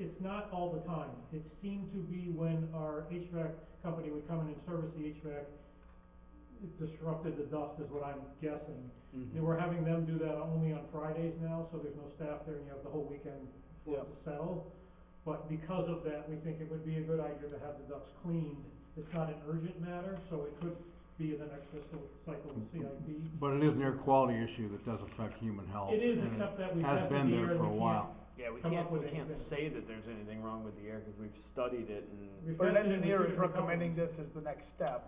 it's not all the time. It seemed to be when our HVAC company would come in and service the HVAC, it disrupted the dust is what I'm guessing. Mm-hmm. And we're having them do that only on Fridays now, so there's no staff there and you have the whole weekend for it to settle. But because of that, we think it would be a good idea to have the ducts cleaned. It's not an urgent matter, so it could be in the next fiscal cycle with CIP. But it is an air quality issue that does affect human health. It is, and except that we've Has tested been the air there and for we a can't, while. Yeah, we come can't, up with we can't anything. say that there's anything wrong with the air, cause we've studied it and, we've But an tested it with two engineer is different recommending companies. this as the next step.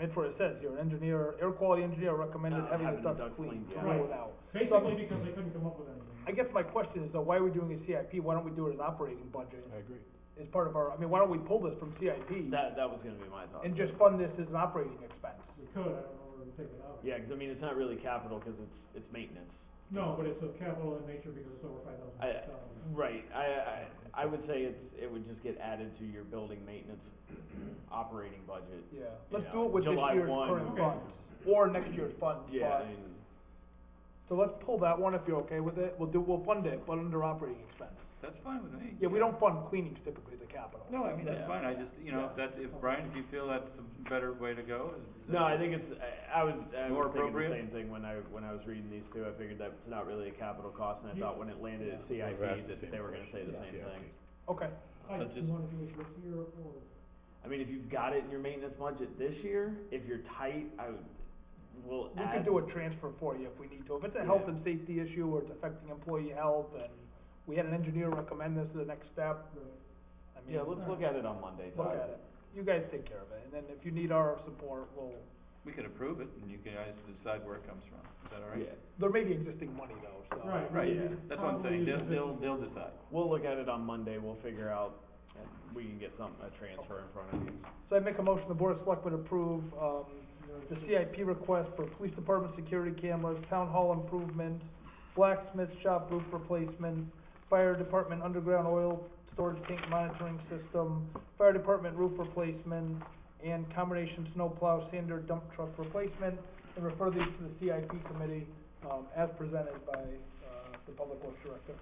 That's what it says here, an engineer, air quality engineer recommended Uh, having having the the duct ducts cleaned, cleaned, yeah. throw Right. it out. Basically because they couldn't come up with anything. I guess my question is, though, why are we doing a CIP, why don't we do it as operating budget, I agree. as part of our, I mean, why don't we pull this from CIP? that, that was gonna be my thought. And just fund this as an operating expense? We could, I don't know where we take it out. Yeah, 'cause I mean, it's not really capital, cause it's, it's maintenance. No, but it's of capital in nature because it's over five thousand I- dollars. Right, I, I, I would say it's, it would just get added to your building maintenance operating budget. Yeah. you Let's do know, it with this July year's one, current okay. funds, or next year's funds, Yeah, but- I mean, so let's pull that one if you're okay with it, we'll do, we'll fund it, but under operating expense. That's fine with me. Yeah, we don't fund cleanings typically, the capital. No, I mean, Yeah. that's fine, I just, you know, if that's, if Brian, if you feel that's a better way to go, is. is no, that- I think it's, I, I was, I More was thinking the appropriate? same thing when I, when I was reading these two, I figured that's not really a capital cost, and I You- thought when it landed at CIP, Yeah. I've asked the that same they were gonna say the question. same Yeah. thing. Okay, I, I do you just- wanna do it this year or? I mean, if you've got it in your maintenance budget this year, if you're tight, I would, we'll we add. could do a transfer for you if we need to, if it's a health Yeah. and safety issue, or it's affecting employee health, and we had an engineer recommend this as the next step, uh, I mean, uh, Yeah, let's look at it on Monday, look Todd. at it. You guys take care of it, and then if you need our support, we'll, We can approve it, and you guys decide where it comes from, is that all right? Yeah, there may be existing money though, so. Right. Right, Yeah. that's what I'm Probably saying, they'll, use it. they'll, they'll decide. we'll look at it on Monday, we'll figure out, and we can get some, a transfer in front of you. So I make a motion, the board of selectmen approve, um, the CIP request for police department security cameras, town hall improvement, blacksmith shop roof replacement, fire department underground oil storage tank monitoring system, fire department roof replacement, and combination snowplow sander dump truck replacement, and refer these to the CIP committee, um, as presented by, uh, the public works director.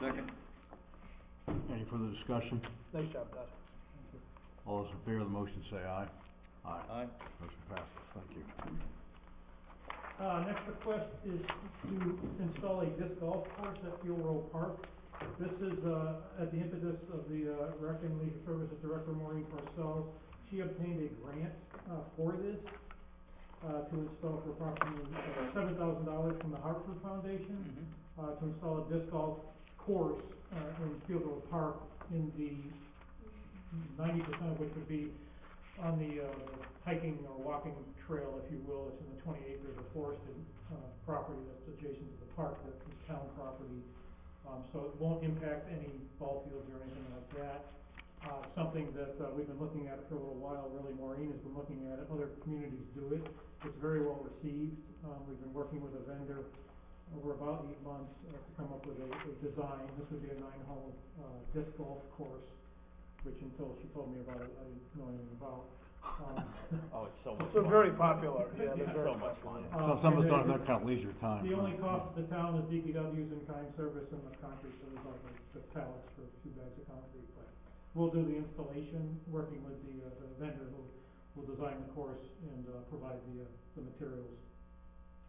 Second, Any further discussion? Nice job, Todd. All those in favor of the motion say aye. Aye. aye. Motion passes, thank you. Uh, next request is to install a disc golf course at Fuel Row Park. This is, uh, at the impetus of the, uh, Rec and Leisure Services Director Maureen Purcell. She obtained a grant, uh, for this, uh, to install for approximately seven thousand dollars from the Hartford Foundation. uh, to install a disc golf course, uh, in Fieldville Park in the ninety percent of which would be on the, uh, hiking or walking trail, if you will, it's in the twenty acres of forested, uh, property that's adjacent to the park, that's the town property. Um, so it won't impact any ball fields or anything like that. Uh, something that, uh, we've been looking at for a little while, really Maureen has been looking at it, other communities do it. It's very well received, um, we've been working with a vendor over about eight months uh, to come up with a, a design. This would be a nine-hole, uh, disc golf course, which until she told me about it, I didn't know anything about. Um, Oh, it's so much Mm-hmm. So fun. very popular, yeah, Yeah, they're very So much popular. fun. So uh, some of us and don't the- have that kind of leisure time. The only huh? cost to the town is DPW's in-kind service and the concrete, so there's like the pallets for two bags of concrete, but we'll do the installation, working with the, uh, the vendor who will design the course and, uh, provide the, uh, the materials.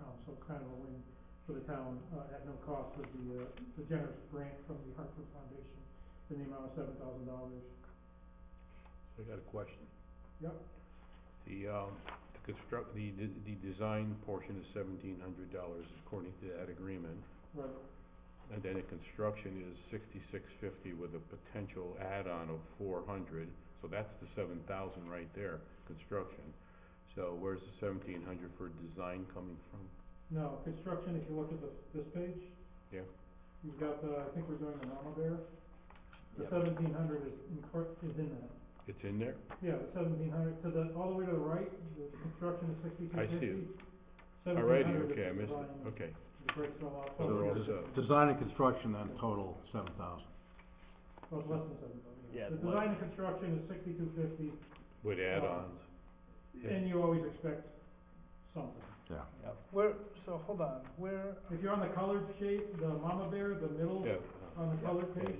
Um, so kind of a win for the town, uh, at no cost with the, uh, the generous grant from the Hartford Foundation in the amount of seven thousand dollars. I got a question. Yep. The, um, the construct, the, the, the design portion is seventeen hundred dollars according to that agreement. Right. And then the construction is sixty-six fifty with a potential add-on of four hundred, so that's the seven thousand right there, construction. So where's the seventeen hundred for design coming from? No, construction, if you look at the, this page. Yeah. You've got the, I think we're doing the mama bear. The Yep. seventeen hundred is in, cor- is in that. It's in there? Yeah, the seventeen hundred, to the, all the way to the right, the construction is sixty-two I fifty. see it. Seventeen Alrighty, hundred is okay, I the missed line it, okay. that breaks it all out. So they're all Well, set. Design and construction then total seven thousand. it's less than seven thousand. Yeah, The it's less. design and construction is sixty-two fifty, With add-ons. Yeah. and you always expect something. Where, so hold on, where, If you're on the colored shape, the mama bear, the middle, Yeah. on the color page?